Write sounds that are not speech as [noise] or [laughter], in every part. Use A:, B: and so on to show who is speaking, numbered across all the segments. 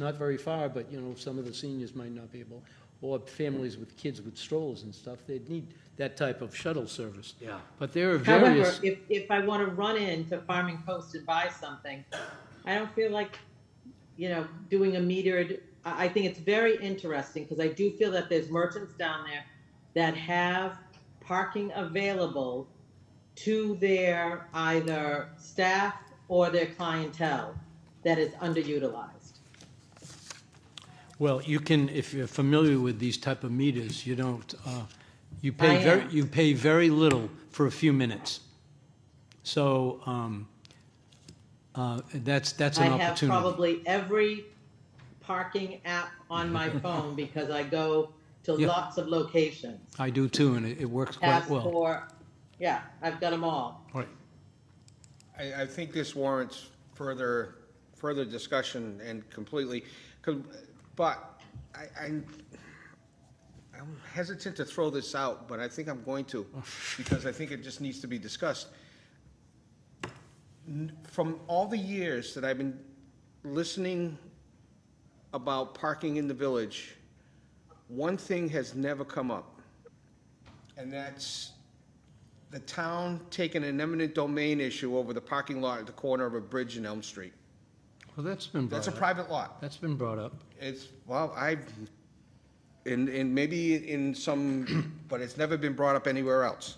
A: not very far, but, you know, some of the seniors might not be able, or families with kids with strollers and stuff, they'd need that type of shuttle service.
B: Yeah.
A: But there are
C: However,
A: various,
C: if, if I want to run into Farming Post and buy something, I don't feel like, you know, doing a metered, I, I think it's very interesting because I do feel that there's merchants down there that have parking available to their either staff or their clientele that is underutilized.
A: well, you can, if you're familiar with these type of meters, you don't, uh, you pay
C: I am.
A: very, you pay very little for a few minutes. So, um, uh, that's, that's
C: I
A: an
C: have
A: opportunity.
C: probably every parking app on
A: [laughs]
C: my phone because I go to
A: Yeah.
C: lots of locations.
A: I do too, and it, it works quite well.
C: passport. Yeah, I've got them all.
A: Right.
D: I, I think this warrants further, further discussion and completely, 'cause- but I, I'm, I'm hesitant to throw this out, but I think I'm going to, because I think it just needs to be discussed. N- From all the years that I've been listening about parking in the village, one thing has never come up, and that's the town taking an eminent domain issue over the parking lot at the corner of a bridge in Elm Street.
A: Well, that's been
D: That's
A: brought
D: a
A: up.
D: private lot.
A: That's been brought up.
D: It's, well, I, and, and maybe in some, [clears throat] but it's never been brought up anywhere else.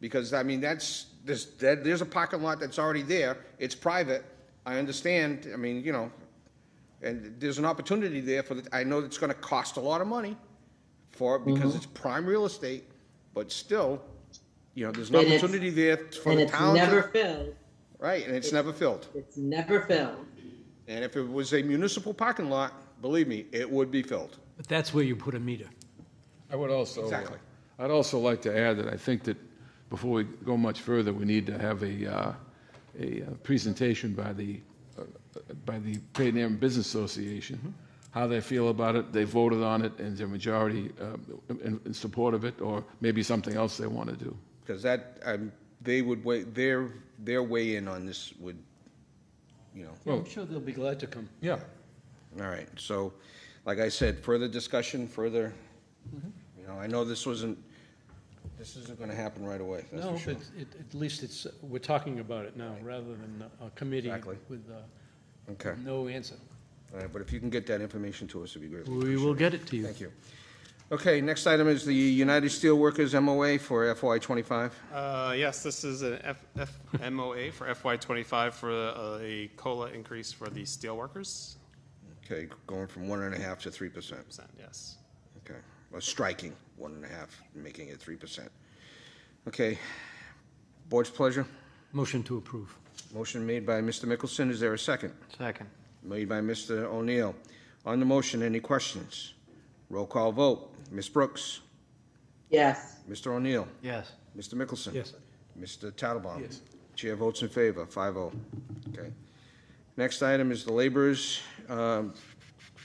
D: Because, I mean, that's, there's, that- there's a parking lot that's already there, it's private, I understand, I mean, you know, and there's an opportunity there for, the I know it's gonna cost a lot of money for, it
C: Mm-hmm.
D: because it's prime real estate, but still, you know, there's an
C: And it's-
D: opportunity there for
C: and
D: the
C: it's
D: town to.
C: never filled.
D: Right, and it's never filled.
C: It's never filled.
D: And if it was a municipal parking lot, believe me, it would be filled.
A: But that's where you put a meter.
E: I would also,
D: Exactly.
E: I'd also like to add that I think that before we go much further, we need to have a, uh, a uh, presentation by the, uh, by the Peyton Amherst Business Association, how they feel about it, they voted on it, and their majority uh, in, in support of it, or maybe something else they want to do.
D: Because that, um, they would wait, their, their weigh in on this would, you know,
A: I'm sure they'll be glad to come.
E: Yeah.
D: all right. So, like I said, further discussion, further,
A: Mm-hmm.
D: you know, I know this wasn't, this isn't gonna happen right away, that's
A: No,
D: for
A: but
D: sure.
A: it, at least it's, we're talking about it now, rather than a committee
D: Exactly.
A: with uh,
D: Okay,
A: no answer.
D: all right, but if you can get that information to us, it'd be great.
A: We will get it to you.
D: Thank you. Okay, next item is the United Steelworkers MOA for FY twenty-five.
F: Uh, Yes, this is an F- FMOA for FY '25 for uh, a COLA increase for the steelworkers,
D: Okay, going from one and a half to three percent.
F: percent, yes.
D: Okay, well, striking one and a half, making it three percent. Okay, board's pleasure.
A: Motion to approve.
D: Motion made by Mr. Mickelson, is there a second?
B: Second.
D: Made by Mr. O'Neill. On the motion, any questions? Roll call vote, Ms. Brooks,
C: Yes,
D: Mr. O'Neill,
B: Yes.
D: Mr. Mickelson.
A: Yes.
D: Mr. Tattlebaum.
E: Yes.
D: Chair votes in favor, 5-0. Okay. Next item is the laborers, um,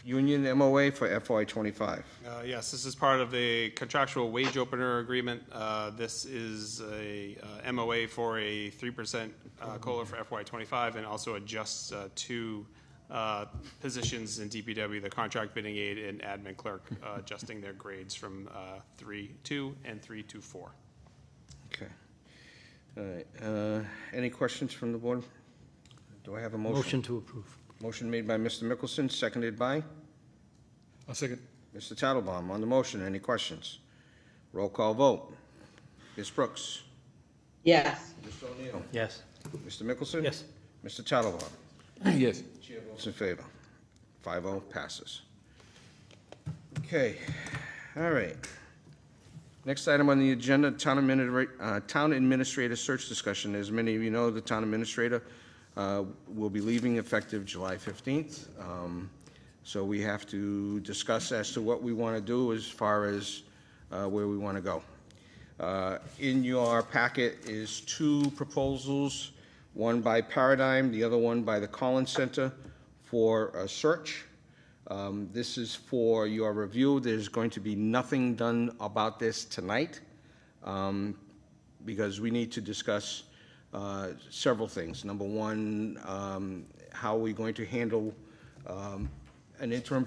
D: union MOA for FY twenty-five.
F: Uh, Yes, this is part of a contractual wage opener agreement. Uh, This is a uh, MOA for a 3% uh, COLA for FY '25 and also adjusts uh, two uh, positions in DPW, the contract bidding aide and admin clerk, uh, adjusting their grades from uh, 3-2 and 3-4.
D: Okay. All right, uh, any questions from the board? Do I have a motion?
A: Motion to approve.
D: Motion made by Mr. Mickelson, seconded by
E: I'll second.
D: Mr. Tattlebaum. On the motion, any questions? Roll call vote. Ms. Brooks?
C: yes,
D: Mr. O'Neill.
B: Yes.
D: Mr. Mickelson?
A: Yes.
D: Mr. Tattlebaum?
E: [clears throat] Yes.
D: Chair votes in favor. 5-0 passes. Okay, all right. Next item on the agenda, town administrator, uh, town administrator search discussion. As many of you know, the town administrator, uh, will be leaving effective July fifteenth. Um, so we have to discuss as to what we want to do as far as, uh, where we want to go. Uh, in your packet is two proposals, one by Paradigm, the other one by the Collins Center for a search. Um, This is for your review. There's going to be nothing done about this tonight um, because we need to discuss uh, several things. Number one, um, how are we going to handle um, an interim